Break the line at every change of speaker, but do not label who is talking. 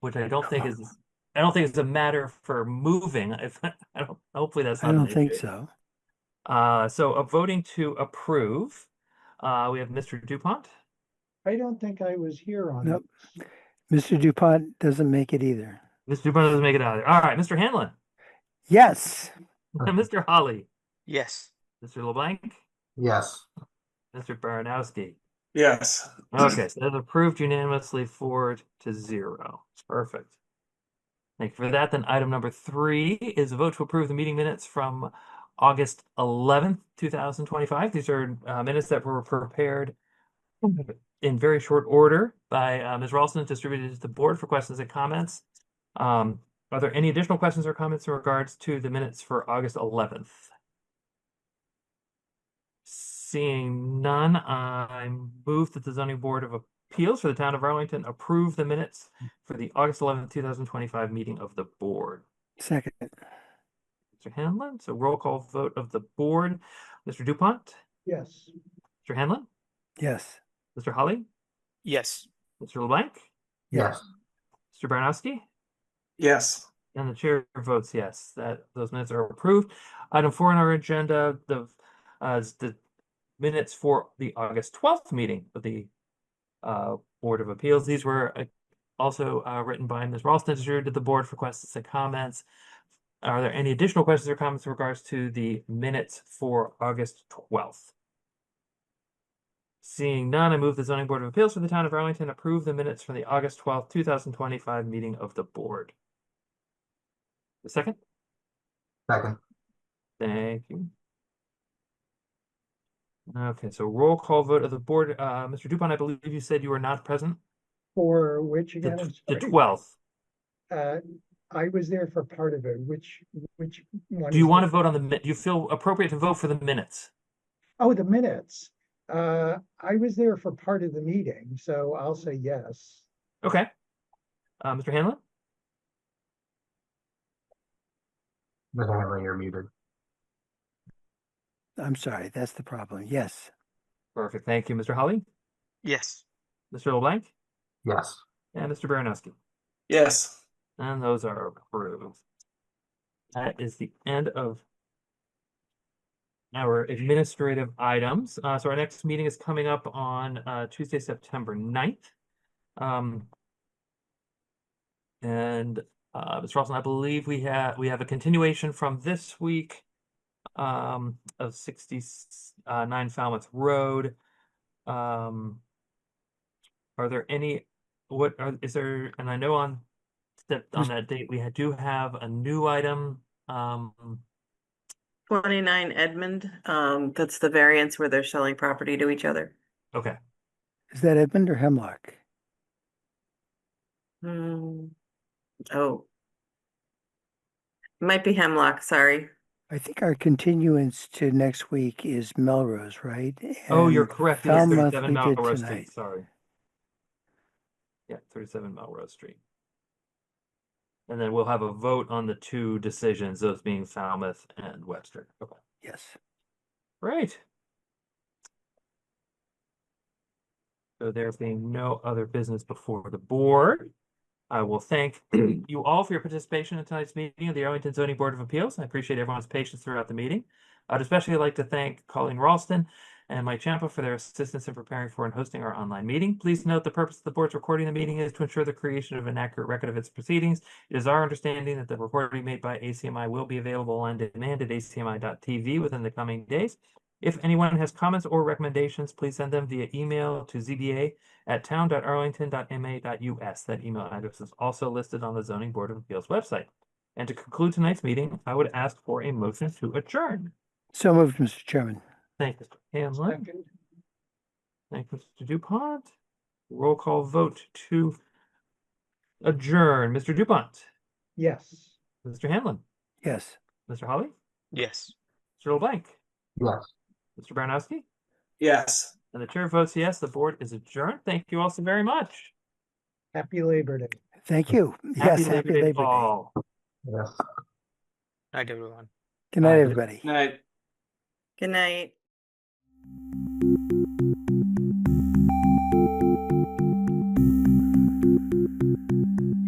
which I don't think is, I don't think it's a matter for moving. If, I don't, hopefully that's
I
not an
don't think
issue.
so.
Uh, so uh, voting to approve, uh, we have Mr. Dupont.
I don't think I was here on it.
Nope. Mr. Dupont doesn't make it either.
Mr. Dupont doesn't make it out. of there. All right, Mr. Hanlon,
Yes,
Mr. Holly,
Yes.
Mr. LeBlanc,
Yes.
Mr. Baranowski.
Yes.
Okay, so that's approved unanimously four to zero. Perfect. Thank you for that. Then item number three is a vote to approve the meeting minutes from August eleventh, two thousand twenty-five. These are uh, minutes that were prepared in very short order by uh, Ms. Ralston, and distributed to the board for questions and comments. Um, are there any additional questions or comments in regards to the minutes for August eleventh? Seeing none, I move that the zoning board of appeals for the town of Arlington approve the minutes for the August eleventh, two thousand twenty-five meeting of the board.
second,
Mr. Hanlon, so roll call vote of the board. Mr. Dupont,
Yes,
Mr. Hanlon,
yes,
Mr. Holly,
Yes.
Mr. LeBlanc,
Yes.
Mr. Baranowski,
Yes.
and the chair votes yes. That those minutes are approved. Item four on our agenda, the uh, is the minutes for the August twelfth meeting of the uh, Board of Appeals. These were uh, also uh, written by Ms. Ralston, distributed to the board for questions and comments. Are there any additional questions or comments in regards to the minutes for August twelfth? Seeing none, I move the zoning board of appeals for the town of Arlington approve the minutes from the August twelfth, two thousand twenty-five meeting of the board. The second,
Second.
thank you. Okay, so roll call vote of the board. Uh, Mr. Dupont, I believe you said you were not present.
for which
The
again, I'm
tw- the
sorry.
twelfth.
Uh, I was there for part of it, which, which one?
Do you
is
want
it?
to vote on the, mi- you feel appropriate to vote for the minutes?
Oh, the minutes. Uh, I was there for part of the meeting, so I'll say yes.
Okay. Uh, Mr. Hanlon,
Mr. Hanlon, you're muted.
I'm sorry, that's the problem. Yes,
perfect. Thank you, Mr. Holly,
Yes.
Mr. LeBlanc,
Yes.
and Mr. Baranowski.
Yes.
And those are approved. That is the end of our administrative items. Uh, so our next meeting is coming up on, uh, Tuesday, September 9th. Um, and, uh, Ms. Ralston, I believe we have, we have a continuation from this week um, of sixty-nine Falmouth Road. Um, are there any, what are, is there, and I know on that, on that date, we do have a new item, um,
Twenty-nine Edmund, um, that's the variance where they're selling property to each other.
okay.
is that Edmund or Hemlock?
Hmm. Oh. Might be Hemlock, sorry.
I think our continuance to next week is Melrose, right?
Oh, you're
And
correct. It is
Falmouth
thirty-seven
we did
Melrose Street,
tonight.
sorry. Yeah, thirty-seven Melrose Street. And then we'll have a vote on the two decisions, those being Falmouth and Webster. Okay,
Yes.
right. So there being no other business before the board, I will thank you all for your participation in tonight's meeting of the Arlington Zoning Board of Appeals. I appreciate everyone's patience throughout the meeting. I'd especially like to thank Colleen Ralston and Mike Champa for their assistance in preparing for and hosting our online meeting. Please note the purpose of the board's recording the meeting is to ensure the creation of an accurate record of its proceedings. It is our understanding that the recording made by ACMI will be available on demand at acmi.tv within the coming days. If anyone has comments or recommendations, please send them via email to zba at town.arlington.ma.us. That email address is also listed on the Zoning Board of Appeals website. And to conclude tonight's meeting, I would ask for a motion to adjourn.
So moved, Mr. Chairman.
Thank you, Mr. Hanlon.
Second.
Thank you, Mr. Dupont. Roll call vote to adjourn. Mr. Dupont,
Yes.
Mr. Hanlon,
Yes.
Mr. Holly,
Yes.
Mr. LeBlanc,
Yes.
Mr. Baranowski,
Yes.
and the chair votes yes. The board is adjourned. Thank you all so very much.
Happy Labor Day.
Thank you. Yes, happy Labor
to
Day.
all.
Yes.
Night, everyone.
Good night,
Happy-
everybody.
Night.
Good night.